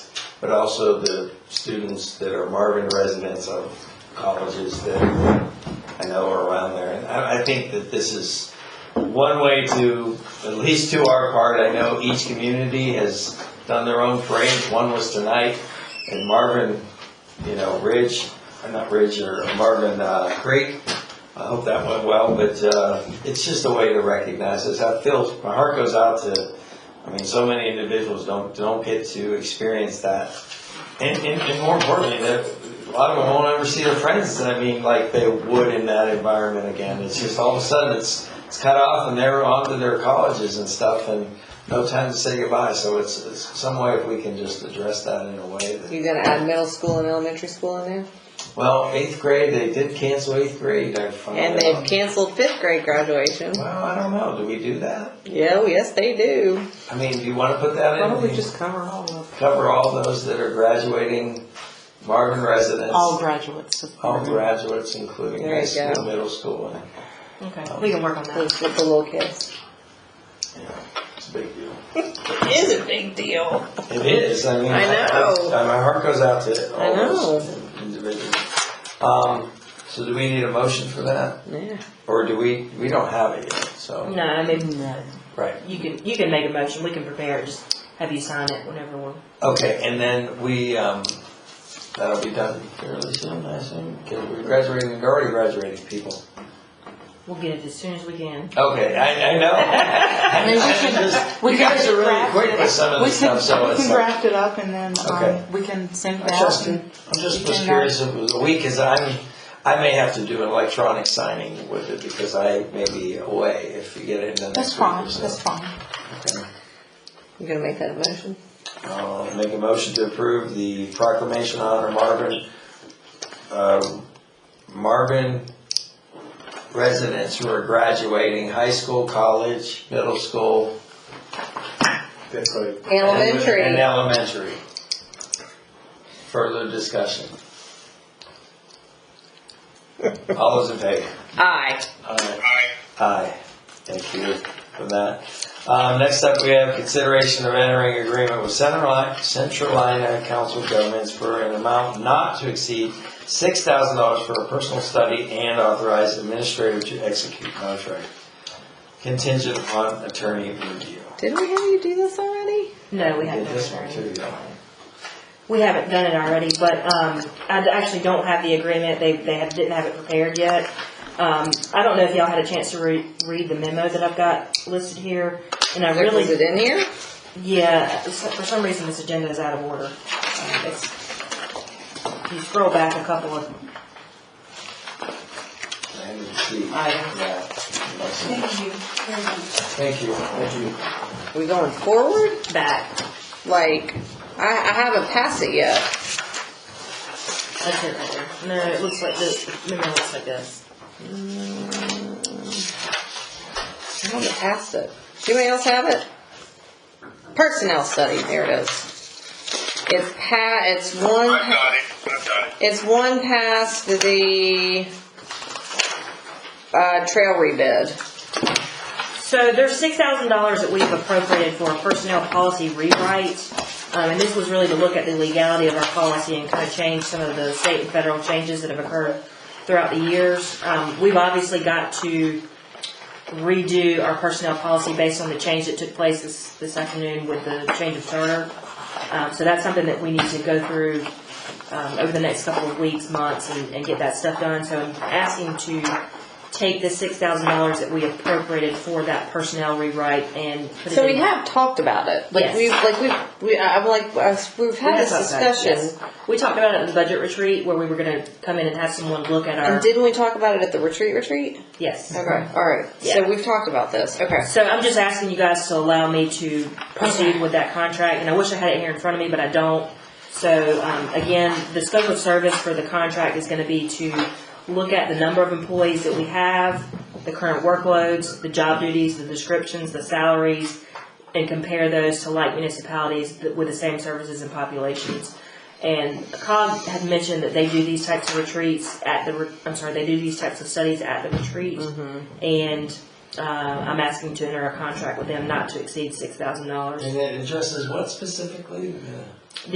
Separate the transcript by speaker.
Speaker 1: but also the students that are Marvin residents of colleges that I know are around there. And I, I think that this is one way to, at least to our part, I know each community has done their own parade. One was tonight, and Marvin, you know, Ridge, or not Ridge, or Marvin uh, Creek. I hope that went well, but uh, it's just a way to recognize us. I feel, my heart goes out to, I mean, so many individuals don't, don't get to experience that. And, and, and more importantly, that a lot of them won't ever see their friends, I mean, like they would in that environment again. It's just all of a sudden, it's, it's cut off and they're on to their colleges and stuff and no time to say goodbye. So it's, it's some way if we can just address that in a way that
Speaker 2: You gonna add middle school and elementary school in there?
Speaker 1: Well, eighth grade, they did cancel eighth grade. I found
Speaker 2: And
Speaker 1: out.
Speaker 2: they've canceled fifth grade graduation.
Speaker 1: Well, I don't know. Do we do that?
Speaker 2: Yeah, oh, yes, they do.
Speaker 1: I mean, do you want to put that in?
Speaker 2: Why don't we just cover all of,
Speaker 1: cover all those that are graduating, Marvin residents,
Speaker 3: All graduates. of-
Speaker 1: all graduates, including
Speaker 2: There
Speaker 1: high
Speaker 2: you
Speaker 1: school,
Speaker 2: go.
Speaker 1: middle school, and
Speaker 3: Okay, we can work on that.
Speaker 2: with with the little kids?
Speaker 1: you know, it's a big deal.
Speaker 2: It is a big deal.
Speaker 1: It is. I mean,
Speaker 2: I know.
Speaker 1: I- I- my heart goes out to all
Speaker 2: I know.
Speaker 1: those individuals. Um, so, do we need a motion for that,
Speaker 2: Yeah.
Speaker 1: or do we? We don't have it yet. So,
Speaker 3: No, I mean, no.
Speaker 1: right.
Speaker 3: you can, you can make a motion, we can prepare it, just have you sign it whenever we're.
Speaker 1: Okay, and then we, um, that'll be done fairly soon, I assume, because we're graduating, we're already graduating people.
Speaker 3: We'll get it as soon as we can.
Speaker 1: Okay, I, I know. I- I just-
Speaker 4: we
Speaker 1: You
Speaker 4: can
Speaker 1: guys are really
Speaker 4: draft
Speaker 1: quick with some of
Speaker 4: We
Speaker 1: this
Speaker 4: can,
Speaker 1: stuff, so
Speaker 4: we
Speaker 1: it's
Speaker 4: can
Speaker 1: like,
Speaker 4: draft it up and then,
Speaker 1: Okay.
Speaker 4: um, we can send
Speaker 1: I'm
Speaker 4: it
Speaker 1: just,
Speaker 4: out. and-
Speaker 1: I'm just
Speaker 4: we
Speaker 1: was
Speaker 4: can, uh,
Speaker 1: curious if it was a week, cause I'm, I may have to do electronic signing with it because I may be away if you get it in the
Speaker 4: That's
Speaker 1: next week
Speaker 4: fine,
Speaker 1: or so.
Speaker 4: that's fine.
Speaker 1: Okay.
Speaker 2: You gonna make that a motion?
Speaker 1: Uh, Make a motion to approve the proclamation honor Marvin, uh, Marvin residents who are graduating high school, college, middle school. That's right.
Speaker 2: Elementary.
Speaker 1: And elementary. Further discussion. All those in favor?
Speaker 2: Aye.
Speaker 1: Aye. Aye. Thank you for that. Um, next up, we have consideration of entering agreement with Central Li- Central Lina Council of Governments for an amount not to exceed six thousand dollars for a personal study and authorize administrator to execute contract contingent upon attorney review.
Speaker 2: Didn't we have you do this already?
Speaker 3: No, we
Speaker 1: Did
Speaker 3: haven't.
Speaker 1: this one too, yeah.
Speaker 3: We haven't done it already, but, um, I d- actually don't have the agreement, they, they have- didn't have it prepared yet. Um, I don't know if y'all had a chance to re- read the memo that I've got listed here, and I really.
Speaker 2: Was it in here?
Speaker 3: Yeah, it's- for some reason this agenda is out of order. Um, It's, if you scroll back a couple of
Speaker 1: I need to see.
Speaker 3: items.
Speaker 1: Yeah. Thank you. Thank you.
Speaker 2: We going forward?
Speaker 3: back,
Speaker 2: Like, I, I haven't passed it yet.
Speaker 3: that's it right there. No, it looks like this, no, it looks like this.
Speaker 2: I haven't passed it. Does anybody else have it? Personnel study, there it is. It's pa, it's one.
Speaker 5: I've got it, I've got it.
Speaker 2: It's one past the, uh, trail rebid.
Speaker 3: So there's six thousand dollars that we've appropriated for a personnel policy rewrite. Um, and this was really to look at the legality of our policy and kind of change some of the state and federal changes that have occurred throughout the years. Um, we've obviously got to redo our personnel policy based on the change that took place this, this afternoon with the change of Turner. Um, so that's something that we need to go through, um, over the next couple of weeks, months, and, and get that stuff done. So I'm asking to take the six thousand dollars that we appropriated for that personnel rewrite and put it
Speaker 2: So we
Speaker 3: in-
Speaker 2: have talked about it. Like
Speaker 3: Yes.
Speaker 2: we've, like we've, we, I'm like, I s- we've
Speaker 3: We
Speaker 2: had
Speaker 3: have
Speaker 2: this
Speaker 3: talked about it,
Speaker 2: discussion.
Speaker 3: yes. We talked about it at the budget retreat where we were gonna come in and have someone look at our,
Speaker 2: And didn't we talk about it at the retreat retreat?
Speaker 3: yes.
Speaker 2: Okay, alright. So
Speaker 3: Yeah.
Speaker 2: we've talked about this, okay.
Speaker 3: So I'm just asking you guys to allow me to proceed with that contract, and I wish I had it here in front of me, but I don't. So, um, again, the scope of service for the contract is gonna be to look at the number of employees that we have, the current workloads, the job duties, the descriptions, the salaries, and compare those to like municipalities that- with the same services and populations. And COG had mentioned that they do these types of retreats at the, re- I'm sorry, they do these types of studies at the retreat. And uh, I'm asking to enter a contract with them not to exceed six thousand dollars.
Speaker 1: And it addresses what specifically? uh, Yeah.